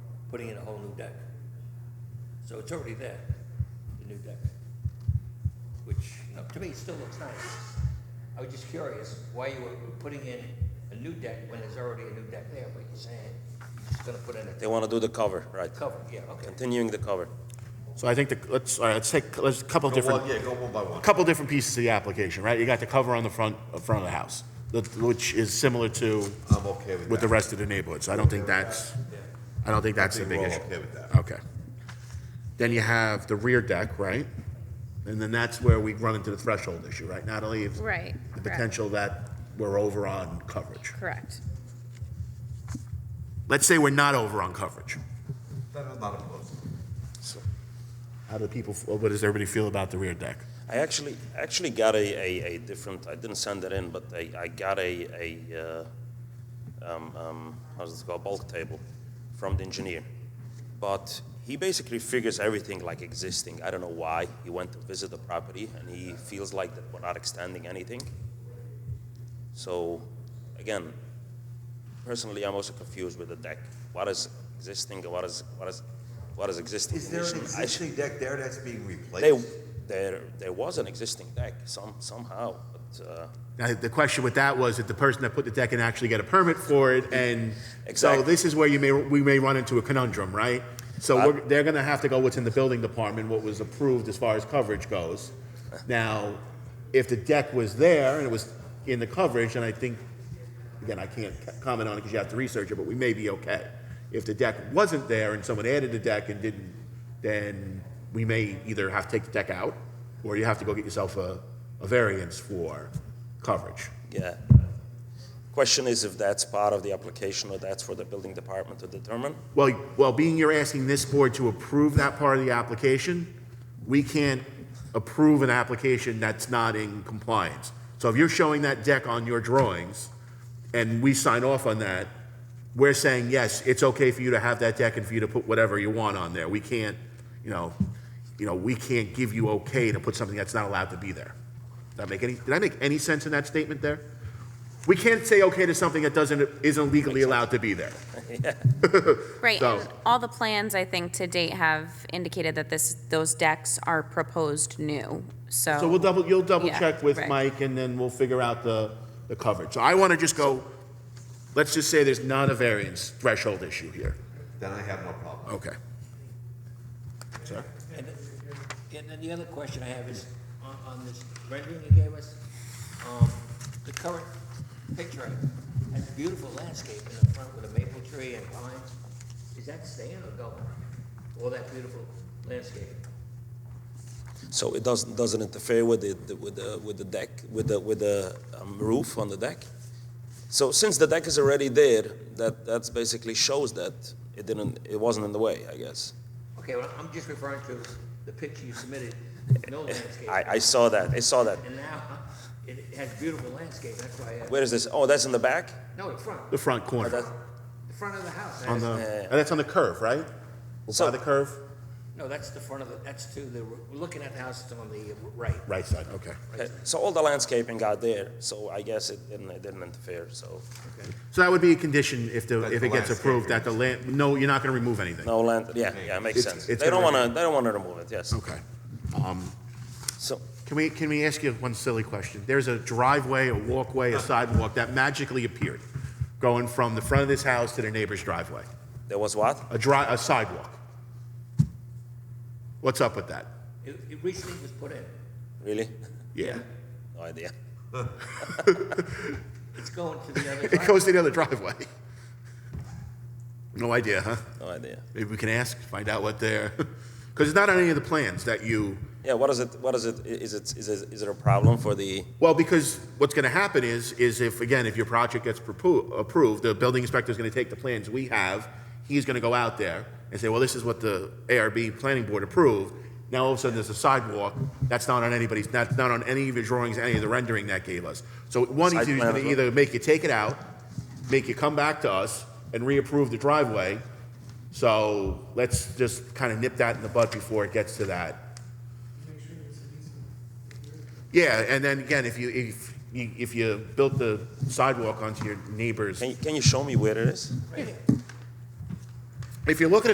putting in a whole new deck. So it's already there, the new deck, which, you know, to me, it still looks nice. I was just curious why you were putting in a new deck when there's already a new deck there, but you're saying you're just gonna put in They a want to do the cover, right? cover, yeah, okay. Continuing the cover. So I think the, let's, all right, let's take, let's, a couple Go one, different, Oh, yeah, go one by one. couple different pieces of the application, right? You got the cover on the front, uh, front of the house, that- which is similar to I'm okay with that. with the rest of the neighborhood, so I don't think that's, I don't think that's the big think we're all issue. okay with that. Okay. Then you have the rear deck, right? And then that's where we run into the threshold issue, right, Natalie? If- Right, The correct. potential that we're over on coverage. Correct. Let's say we're not over on coverage. That is not opposed. How do people, what does everybody feel about the rear deck? I actually actually got a, a, a different. I didn't send it in, but I, I got a a uh, um, um, how's it called bulk table from the engineer, but he basically figures everything like existing. I don't know why he went to visit the property and he feels like that we're not extending anything. So, again, personally, I'm also confused with the deck. What is existing? What is what is what is existing? Is there an condition? I should- existing deck there that's being replaced? they, there, there was an existing deck some, somehow, but, uh, Now, the question with that was, did the person that put the deck in actually get a permit for it? And so Exactly. this is where you may, we may run into a conundrum, right? So I- we're, they're gonna have to go what's in the building department, what was approved as far as coverage goes. Now, if the deck was there and it was in the coverage, and I think, again, I can't c- comment on it because you have to research it, but we may be okay. If the deck wasn't there and someone added a deck and didn't, then we may either have to take the deck out, or you have to go get yourself a, a variance for coverage. yeah. Question is if that's part of the application or that's for the building department to determine? Well, well, being you're asking this board to approve that part of the application, we can't approve an application that's not in compliance. So if you're showing that deck on your drawings and we sign off on that, we're saying, yes, it's okay for you to have that deck and for you to put whatever you want on there. We can't, you know, you know, we can't give you okay to put something that's not allowed to be there. Did that make any, did I make any sense in that statement there? We can't say okay to something that doesn't, isn't legally allowed to be there. Right, So- and all the plans, I think, to date have indicated that this, those decks are proposed new, so. So we'll double, you'll double Oh. Yeah, check with right. Mike and then we'll figure out the, the coverage. So I want to just go, let's just say there's not a variance threshold issue here. Then I have no problem. Okay. Sir? And, and then the other question I have is, on, on this rendering you gave us, um, the current picture has a beautiful landscape in the front with a maple tree and pines. Is that staying or going? All that beautiful landscape? So it doesn't, doesn't interfere with the- the, with the, with the deck, with the, with the um, roof on the deck? So since the deck is already there, that, that's basically shows that it didn't, it wasn't in the way, I guess. Okay, well, I'm just referring to the picture you submitted, no landscape. I, I saw that, I saw that. And now, it has beautiful landscape, that's why, I- Where is this? Oh, that's in the back? no, the front, The front Oh, corner, that- the front of the house. on the, and that's on the curve, right? By So- the curve? No, that's the front of the, that's to the, we're looking at the house, it's on the right. Right side, okay. Okay, So all the landscaping got there, so I guess it didn't, it didn't interfere, so So that would be a condition if the, That if the it gets landscape approved, that the land, no, you're not going to remove anything. no land, yeah, yeah, it makes It's- sense. They it's don't already- wanna, they don't wanna remove it, yes. Okay. So, Can we, can we ask you one silly question? There's a driveway, a walkway, a sidewalk that magically appeared going from the front of this house to the neighbor's driveway. there was what? a dry, a sidewalk. What's up with that? It, it recently was put in. Really? Yeah. No idea. It's going to the other It side. goes to the other driveway. No idea, huh? No idea. Maybe we can ask, find out what they're, because it's not on any of the plans that you, Yeah, what is it, what is it, i- is it, is it, is it a problem for the, well, because what's going to happen is, is if, again, if your project gets propo- approved, the building inspector's going to take the plans we have, he's going to go out there and say, well, this is what the ARB planning board approved. Now, all of a sudden, there's a sidewalk, that's not on anybody's, that's not on any of your drawings, any of the rendering that gave us. So one, Site he's plan as going to well. either make you take it out, make you come back to us and reapprove the driveway. So let's just kind of nip that in the bud before it gets to that. Yeah, and then again, if you, if, you- if you built the sidewalk onto your neighbor's, can you, can you show me where it is? if you're looking at